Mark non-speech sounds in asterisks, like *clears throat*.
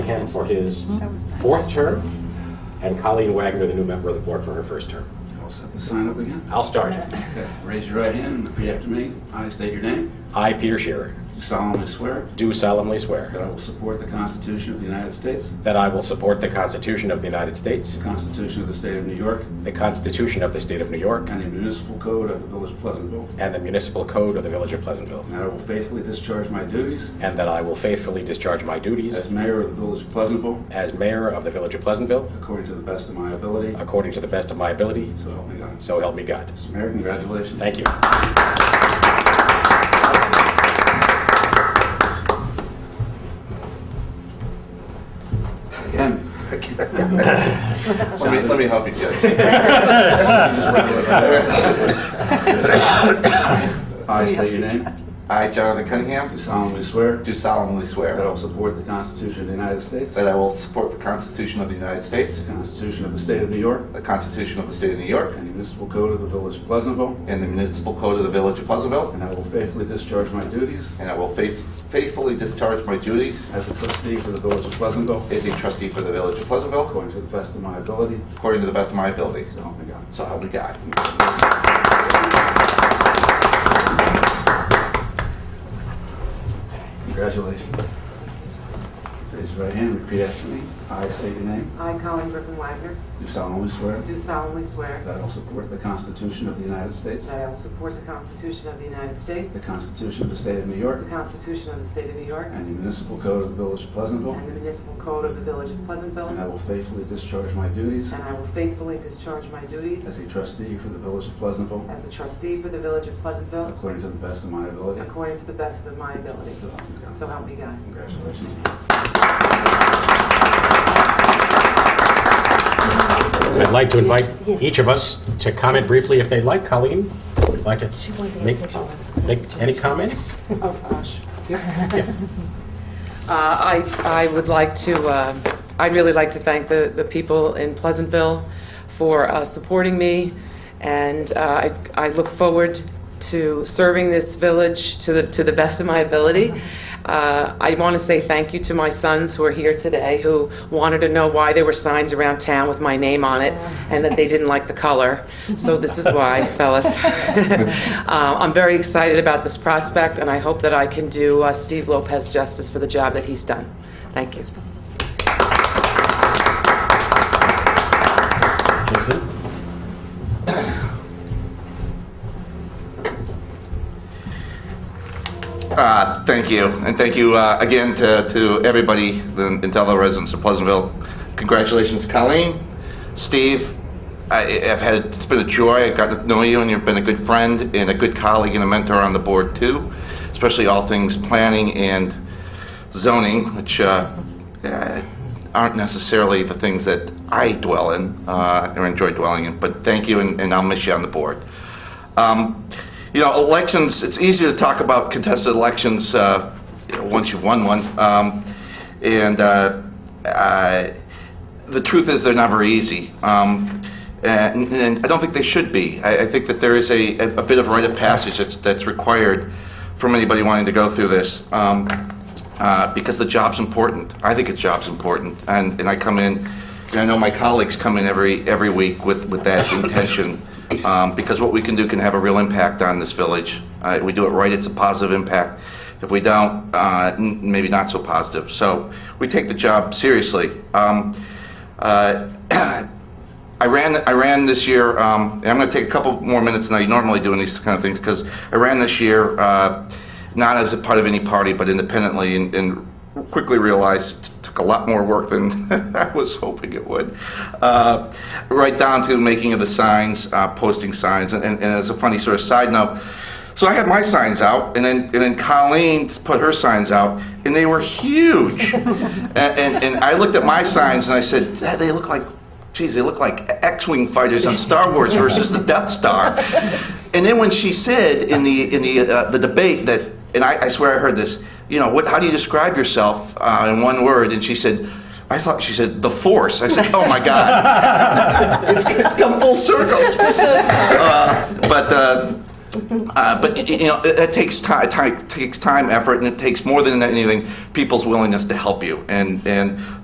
Callahan for his Mm-hmm. That was nice. fourth term, and Colleen Wagner, the new member of the board, for her first term. I'll set the sign up again. I'll start. Okay, Raise your right hand and repeat after me. I state your name. I, Peter Shearer, Do solemnly swear do solemnly swear that I will support the Constitution of the United States, that I will support the Constitution of the United States, the Constitution of the State of New York, the Constitution of the State of New York, and the municipal code of the Village of Pleasantville, and the municipal code of the Village of Pleasantville, and that I will faithfully discharge my duties and that I will faithfully discharge my duties as mayor of the Village of Pleasantville as mayor of the Village of Pleasantville according to the best of my ability, according to the best of my ability, so help me God. so help me God. Mr. Mayor, congratulations. Thank you. Again. Let me, let me help you, Judge. I state your name. I, Jonathan Do Cunningham, solemnly swear do solemnly that I swear will support the Constitution of the United States, that I will support the Constitution of the United States, the Constitution of the State of New York, the Constitution of the State of New York, and the municipal code of the Village of Pleasantville, and the municipal code of the Village of Pleasantville, and I will faithfully discharge my duties and I will faith- faithfully discharge my duties as a trustee for the Village of Pleasantville as a trustee for the Village of Pleasantville according to the best of my ability, according to the best of my abilities. so help me God. So help me God. Congratulations. Raise your right hand, and repeat after me. I state your name. I, Colin Griffin Wagner, Do solemnly swear do solemnly swear that I will support the Constitution of the United States, that I will support the Constitution of the United States, the Constitution of the State of New the York, Constitution of the State of New York, and the municipal code of the Village of Pleasantville, and the municipal code of the Village of and I Pleasantville, will faithfully discharge my duties and I will faithfully discharge my as duties a trustee for the Village of Pleasantville as a trustee for the Village of Pleasantville according to the best of my ability. according to the best of my ability. So help me God. So help me God. Congratulations. I'd like to invite each of us to comment briefly if they'd like. Colleen, would you like to make Oh, make any comments? *laughs* Yeah. Uh, I I would like to, uh, I'd really like to thank the the people in Pleasantville for uh, supporting me, and uh, I I look forward to serving this village to the to the best of my ability. Uh, I want to say thank you to my sons who are here today, who wanted to know why there were signs around town with my name on it, and that they didn't like the color. So this is why, fellas. Uh, I'm very excited about this prospect, and I hope that I can do uh, Steve Lopez justice for the job that he's done. Thank you. Uh, Thank you, and thank you uh, again to to everybody in in Belleville residents of Pleasantville. Congratulations, Colleen, Steve. I- I've had, it's been a joy, I've gotten to know you, and you've been a good friend and a good colleague and a mentor on the board, too, especially all things planning and zoning, which uh, uh, aren't necessarily the things that I dwell in uh, or enjoy dwelling in, but thank you, and and I'll miss you on the board. Um, You know, elections, it's easier to talk about contested elections uh, you know, once you've won one. Um, And uh, uh, the truth is, they're never easy. Um, And and I don't think they should be. I I think that there is a a bit of rite of passage that's that's required from anybody wanting to go through this. Um, uh, because the job's important. I think the job's important, and, and I come in, and I know my colleagues come in every, every week with, with that intention, um, because what we can do can have a real impact on this village. Uh, If we do it right, it's a positive impact. If we don't, uh, n- maybe not so positive. So we take the job seriously. Um, uh, *clears throat* *coughs* I ran, I ran this year, um, and I'm going to take a couple more minutes than I normally do in these kind of things, because I ran this year uh, not as a part of any party, but independently, and, and quickly realized it took a lot more work than *laughs* I was hoping it would. Uh, right down to making of the signs, uh, posting signs, and, and, and as a funny sort of side note, so I had my signs out, and then and then Colleen put her signs out, and they were huge. and, and, and I looked at my signs and I said, "Dad, they look like, geez, they look like X-wing fighters on Star Wars versus the Death Star. And then when she said in the in the uh, the debate that, and I, I swear I heard this, you know, what? How do you describe yourself uh, in one word? And she said. I thought she said the force. I said, "Oh my God, it's, it's come full circle." Uh, but uh, uh, but y- y- you know, it, it takes time, takes time, effort, and it takes more than anything people's willingness to help you. And and